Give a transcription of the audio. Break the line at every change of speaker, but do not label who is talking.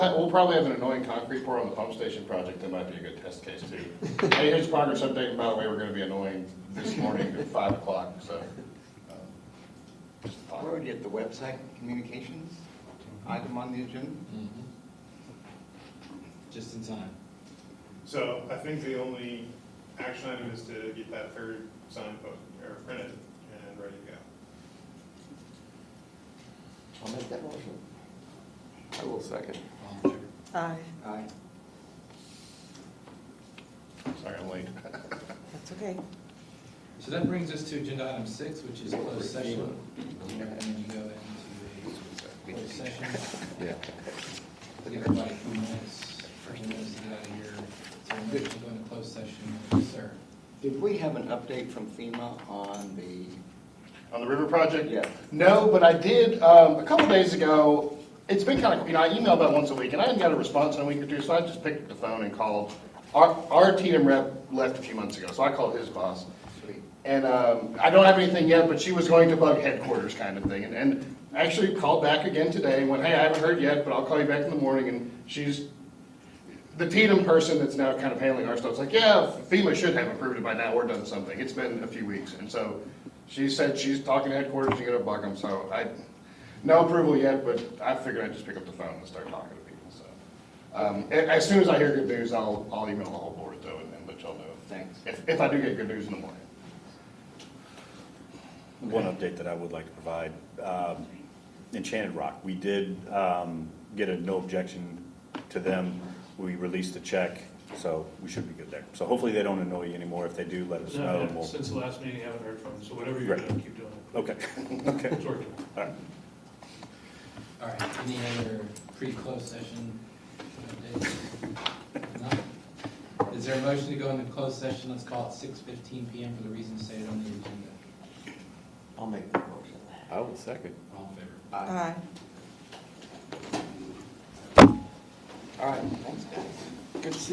have, we'll probably have an annoying concrete pour on the pump station project, that might be a good test case too. Hey, here's progress update, and by the way, we're gonna be annoying this morning at five o'clock, so. um, just a thought.
Where would you get the website communications item on the agenda?
Mm-hmm. Just in time.
So I think the only action item is to get that third sign posted, or printed, and ready to go.
I'll make that motion.
I will second.
All in favor?
Aye,
Aye.
Sorry, I'm late.
that's okay.
So that brings us to agenda item six, which is closed session. And then you go into a closed session.
Yeah.
Give everybody a few minutes, few minutes to get out of here. So we're going to go into closed session, Yes, sir.
Did we have an update from FEMA on the,
On the river project?
Yeah.
No, but I did, um, a couple days ago, it's been kind of, you know, I email about once a week, and I hadn't got a response in a week or two, so I just picked up the phone and called. Our, our TM rep left a few months ago, so I called his boss. And, um, I don't have anything yet, but she was going to bug headquarters kind of thing, and, and actually called back again today and went, hey, I haven't heard yet, but I'll call you back in the morning, and she's the Tatum person that's now kind of handling our stuff's like, yeah, FEMA should have approved it by now or done something. It's been a few weeks. And so she said she's talking to headquarters, she's gonna bug them, so I, no approval yet, but I figured I'd just pick up the phone and start talking to people, so. Um, a- as soon as I hear good news, I'll, I'll email the whole board though and then let y'all know.
Thanks.
If, if I do get good news in the morning.
One update that I would like to provide, um, Enchanted Rock, we did um, get a no objection to them. We released a check, so we should be good there. So hopefully they don't annoy you anymore. If they do, let us know. and
No,
we'll-
Since the last meeting, I haven't heard from them, so whatever you're
Right.
doing, keep doing it.
Okay, okay,
It's working.
all right.
All right, any other pre-closed session updates? None? Is there a motion to go into closed session? Let's call it six fifteen PM for the reasons stated on the agenda.
I'll make that motion.
I will second.
All in favor?
Aye.
All right, thanks, guys. Good to see